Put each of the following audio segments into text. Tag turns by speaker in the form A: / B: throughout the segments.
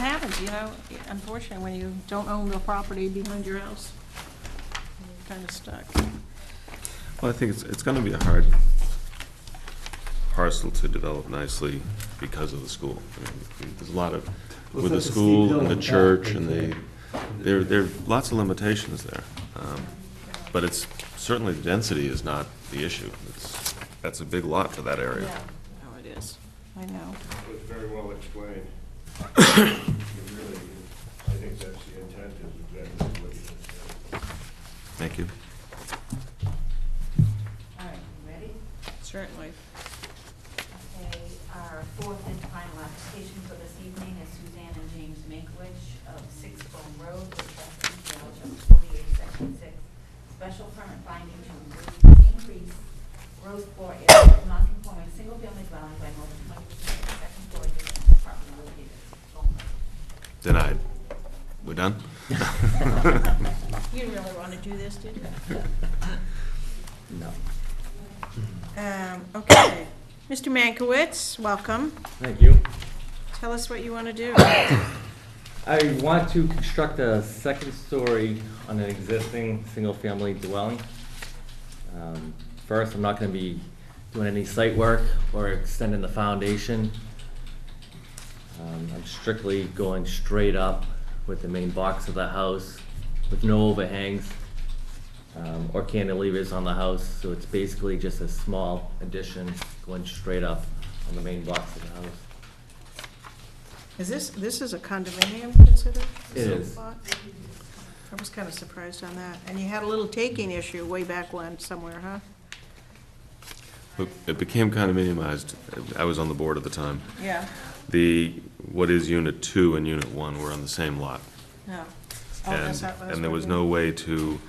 A: happens, you know, unfortunately, when you don't own the property behind your house, you're kind of stuck.
B: Well, I think it's, it's gonna be a hard parcel to develop nicely because of the school. I mean, There's a lot of,
C: Well,
B: with the
C: it's like a steep
B: school
C: hill
B: and
C: on
B: the
C: the
B: church
C: back,
B: and
C: isn't
B: the, there, there are lots of limitations there. Um, But it's, certainly the density is not the issue. It's, that's a big lot for that area.
A: How it is, I know.
D: was very well explained. It really is. I think that's the intent is exactly what you said.
B: Thank you.
E: All right, you ready?
A: Certainly.
E: Okay, our fourth and final application for this evening is Suzanne and James Makewich of Six Bone Road, which is in charge of forty-eight section six. Special permit finding to increase road floor area of non-conforming single-family dwelling by more than twenty percent of the second floor unit in the apartment located at Bone Road.
B: Denied. We're done?
A: You really want to do this, did you?
C: No.
A: Um, okay. Mr. Mankiewicz, welcome.
C: Thank you.
A: Tell us what you want to do.
C: I want to construct a second story on an existing single-family dwelling. Um, First, I'm not gonna be doing any site work or extending the foundation. Um, I'm strictly going straight up with the main box of the house, with no overhangs um, or cantilevers on the house, so it's basically just a small addition going straight up on the main box of the house.
A: Is this, this is a condominium considered?
C: It is.
A: lot? I was kind of surprised on that. And you had a little taking issue way back when somewhere, huh?
B: Look, It became condominiumized. I was on the board at the time.
A: Yeah.
B: The, what is Unit Two and Unit One were on the same lot.
A: No. Oh, that's
B: And,
A: not- that's
B: and there
A: what
B: was
A: you-
B: no way to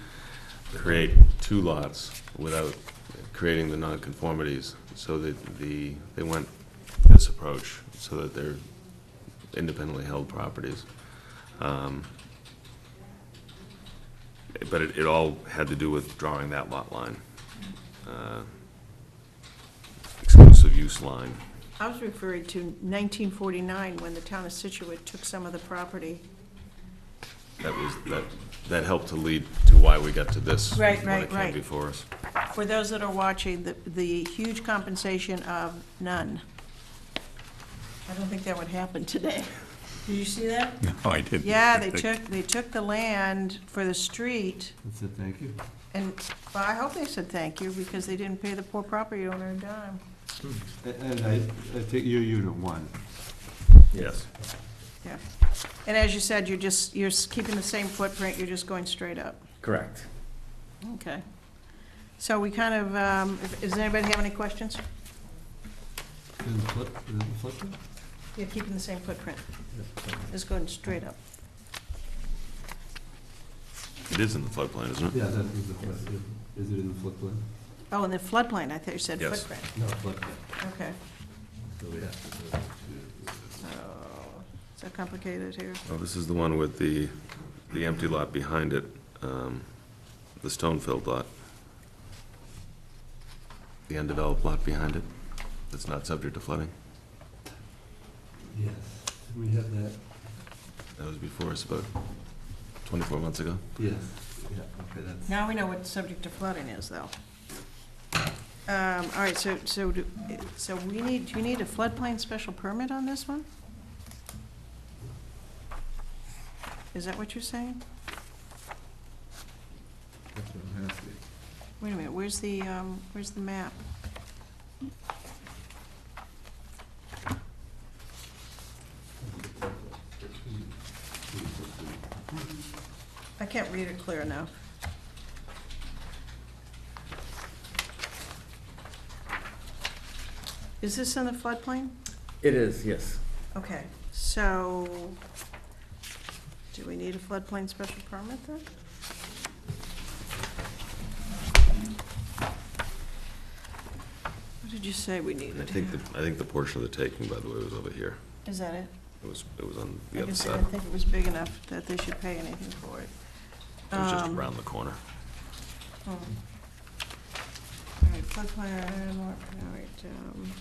B: create two lots without creating the nonconformities. So that the, they went this approach, so that they're independently held properties. Um, But it, it all had to do with drawing that lot line. uh, Exclusive use line.
A: I was referring to 1949, when the town of Situate took some of the property.
B: That was, that, that helped to lead to why we got to this.
A: Right,
B: When
A: right,
B: it came
A: right.
B: before us.
A: For those that are watching, the, the huge compensation of none. I don't think that would happen today. Did you see that?
F: No, I didn't.
A: Yeah, they took, they took the land for the street,
C: That's it, thank you.
A: and, well, I hope they said thank you, because they didn't pay the poor property owner a dime.
D: And I, I think you're unit one.
B: Yes.
A: Yeah. And as you said, you're just, you're s- keeping the same footprint, you're just going straight up.
C: Correct.
A: Okay. So we kind of, um, if- does anybody have any questions? Yeah, keeping the same footprint. Just going straight up.
B: It is in the floodplain, isn't it?
G: Yeah, that is the floodplain. Is it in the floodplain?
A: Oh, and the floodplain, I thought you said
B: Yes.
A: footprint.
G: No, floodplain.
A: Okay.
G: So we have to, uh,
A: So, Oh, so complicated here.
B: Well, this is the one with the, the empty lot behind it, um, the stone-filled lot. The undeveloped lot behind it, that's not subject to flooding.
G: Yes, we have that,
B: That was before us about 24 months ago.
G: yes, yeah, okay, that's.
A: Now we know what subject to flooding is, though. Um, all right, so, so, do- so we need, do you need a floodplain special permit on this one? Is that what you're saying?
G: That's what I'm asking.
A: Wait a minute, where's the, um, where's the map? I can't read it clear enough. Is this in the floodplain?
C: It is, yes.
A: Okay, so, do we need a floodplain special permit then? What did you say we
B: I
A: needed
B: think,
A: here?
B: the I think the portion of the taking, by the way, was over here.
A: Is that it?
B: It was, it was on
A: I
B: the other
A: just
B: side.
A: didn't think it was big enough that they should pay anything for it.
B: It was just
A: Um,
B: around the corner.
A: Oh. All right, floodplain, all right, um,